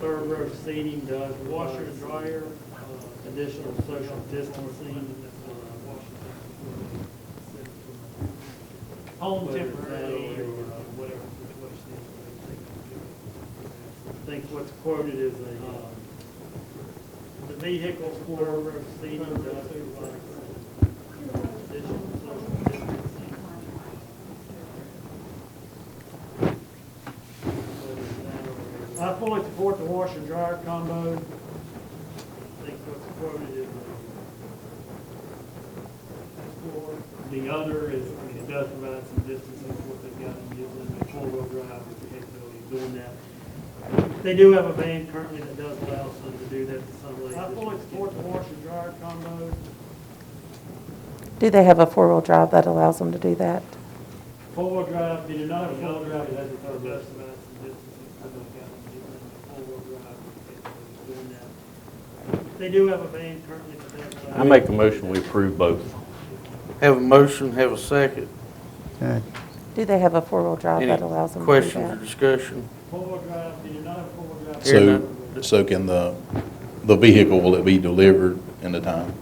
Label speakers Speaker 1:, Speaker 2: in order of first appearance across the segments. Speaker 1: third row seating does washer, dryer, uh, additional social distancing. uh,
Speaker 2: Home
Speaker 1: whether
Speaker 2: temporary
Speaker 1: that
Speaker 2: or
Speaker 1: or, uh,
Speaker 2: whatever the question is.
Speaker 1: I think what's quoted is a, uh, the vehicle third row seating does provide additional social distancing. I fully support the washer dryer combo. I think what's quoted is uh, the other is, I mean, it does provide some distancing to what they've got in Midland, and four-wheel drive with the capability of doing that. They do have a van currently that does allow some to do that to some length. I fully support the washer dryer combo.
Speaker 3: Do they have a four-wheel drive that allows them to do that?
Speaker 1: Four-wheel drive, did you not have a four-wheel drive, that's the third best amount of distancing for those guys, you four-wheel drive, it's doing that. They do have a van currently, but that's.
Speaker 4: I make a motion, we approve both.
Speaker 5: Have a motion, have a second.
Speaker 6: Okay.
Speaker 3: Do they have a four-wheel drive
Speaker 5: Any
Speaker 3: that allows them to do
Speaker 5: questions or
Speaker 3: that?
Speaker 5: discussion?
Speaker 1: Four-wheel drive, did you not have four-wheel drive?
Speaker 5: Hearing
Speaker 7: So, so can the, the vehicle, will it be delivered in the time?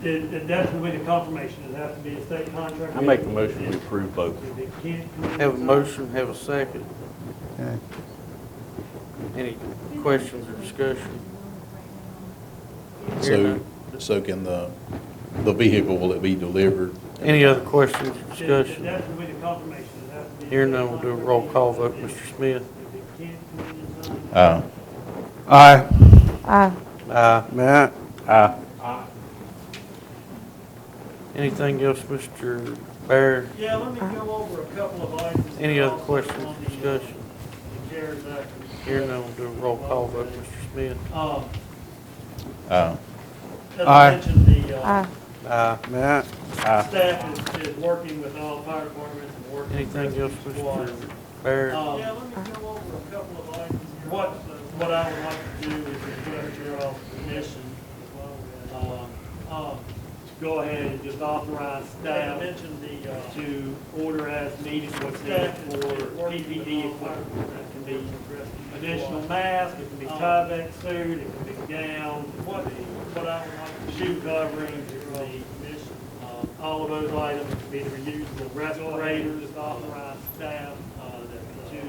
Speaker 1: It, it, that's gonna be the confirmation, it has to be a state contract.
Speaker 4: I make a motion, we approve both.
Speaker 1: If it can't come in-
Speaker 5: Have a motion, have a second.
Speaker 6: Okay.
Speaker 5: Any questions or discussion? Hearing
Speaker 7: So,
Speaker 5: none.
Speaker 7: so can the, the vehicle, will it be delivered?
Speaker 5: Any other questions or
Speaker 1: It- it-
Speaker 5: discussion?
Speaker 1: That's gonna be the confirmation, it has to be. a
Speaker 5: Hearing
Speaker 1: state
Speaker 5: none, we'll do a
Speaker 1: contract.
Speaker 5: roll call vote. Mr. Smith?
Speaker 1: If it can't come in in time,
Speaker 7: Uh,
Speaker 6: Aye.
Speaker 3: Aye.
Speaker 5: Aye.
Speaker 6: Matt?
Speaker 5: Anything else, Mr. Bear?
Speaker 1: Yeah, let me go over a couple of items.
Speaker 5: Any other
Speaker 1: Also
Speaker 5: questions
Speaker 1: on
Speaker 5: or
Speaker 1: the, uh,
Speaker 5: discussion?
Speaker 1: The CARES Act.
Speaker 5: Hearing none, we'll do a roll call vote. Mr. Smith?
Speaker 1: Um,
Speaker 7: uh,
Speaker 1: as I
Speaker 6: Aye.
Speaker 1: mentioned, the,
Speaker 3: Aye.
Speaker 1: uh,
Speaker 5: Aye.
Speaker 6: Matt?
Speaker 1: staff is, is working with all fire departments and working. with
Speaker 5: Anything else,
Speaker 1: rescue squads.
Speaker 5: Mr. Bear?
Speaker 1: Um, Yeah, let me go over a couple of items. What, what I would like to do is request your all's permission, um, um, to go ahead and just authorize staff to order as needed what's needed for PPE equipment. That can be additional masks, it can be Tyvek suit, it can be gowns, Um, what, what I would like to shoe coverings, it can be um, All of those items can be reusable respirators, authorized staff, uh, that to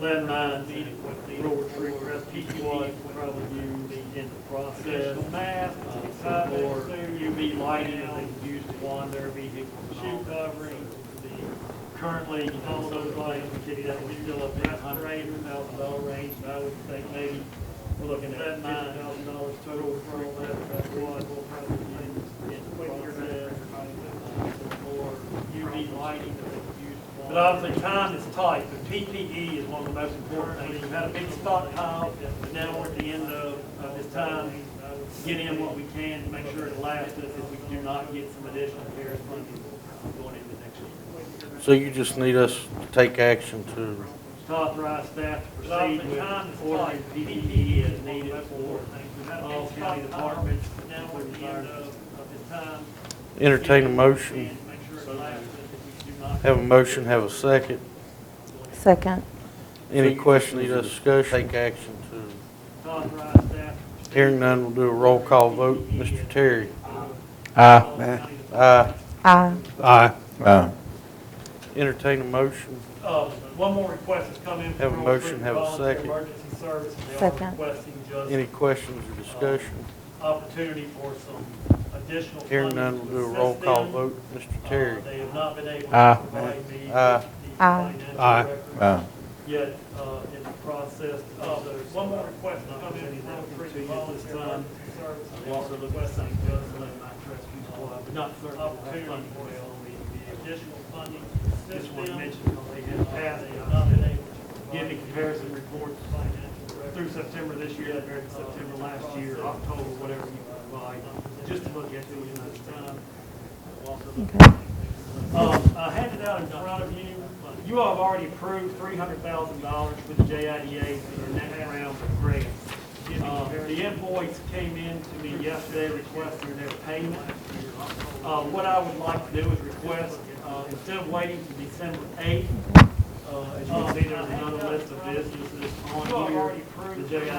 Speaker 1: let them know that needed what the rule tree PPE would probably use in the process. Uh, Masks, or UV lighting, that they can use to wander, vehicle, shoe covering, the, currently, all those items, we could, that we still up in a hundred eighty thousand dollar range, but I would think maybe we're looking at nine thousand dollars total for all that, that's what we'll probably use in the process. Or UV lighting that they could use. But obviously, time is tight, but PPE is one of the most important things. We've had a big stockpile, but now we're at the end of, of this time. Get in what we can to make sure it lasts us if we do not get some additional CARES funding going into next year.
Speaker 5: So you just need us to take action to,
Speaker 1: To authorize staff to proceed with ordering PPE as needed for all county departments. Now we're at the end of, of this time.
Speaker 5: entertain a motion?
Speaker 1: And make sure it lasts us if we do not.
Speaker 5: Have a motion, have a second.
Speaker 3: Second.
Speaker 5: Any questions or discussion? Take action to.
Speaker 1: To authorize staff. to
Speaker 5: Hearing none, we'll do a roll call vote. Mr. Terry?
Speaker 1: All
Speaker 6: Matt?
Speaker 1: county departments.
Speaker 5: Aye.
Speaker 3: Aye.
Speaker 6: Aye.
Speaker 7: uh,
Speaker 5: Entertain a motion.
Speaker 1: Uh, One more request has come in. from
Speaker 5: Have a motion, have a
Speaker 1: Volunteer
Speaker 5: second.
Speaker 1: Emergency service, and they are
Speaker 3: Second.
Speaker 1: requesting
Speaker 5: Any
Speaker 1: just
Speaker 5: questions or discussion?
Speaker 1: opportunity for some additional.
Speaker 5: Hearing none,
Speaker 1: funding to
Speaker 5: we'll do a
Speaker 1: assist
Speaker 5: roll call
Speaker 1: them.
Speaker 5: vote. Mr.
Speaker 1: Uh,
Speaker 5: Terry?
Speaker 1: They have not been able
Speaker 6: Aye.
Speaker 1: to provide me.
Speaker 5: Aye.
Speaker 1: with the
Speaker 3: Aye.
Speaker 1: financial
Speaker 6: Aye.
Speaker 1: records
Speaker 7: uh,
Speaker 1: Yet, uh, in the process, uh, there's one more request has come in from three volunteer emergency service. I'm also requesting just let my rescue squad, but not for opportunity for the additional funding. This one mentioned they had passed, they have not been able to give me comparison reports through September this year, compared to September last year, October, whatever you provide, just to look at it in this time.
Speaker 3: Okay.
Speaker 1: Um, I handed out in front of you, you all have already approved three hundred thousand dollars for the JIDA for the next round of grants. Uh, the invoice came in to me yesterday requesting their payment. Uh, what I would like to do is request, uh, instead of waiting to December um, eighth, uh, as you can see, there's another list of businesses on here. The JIDA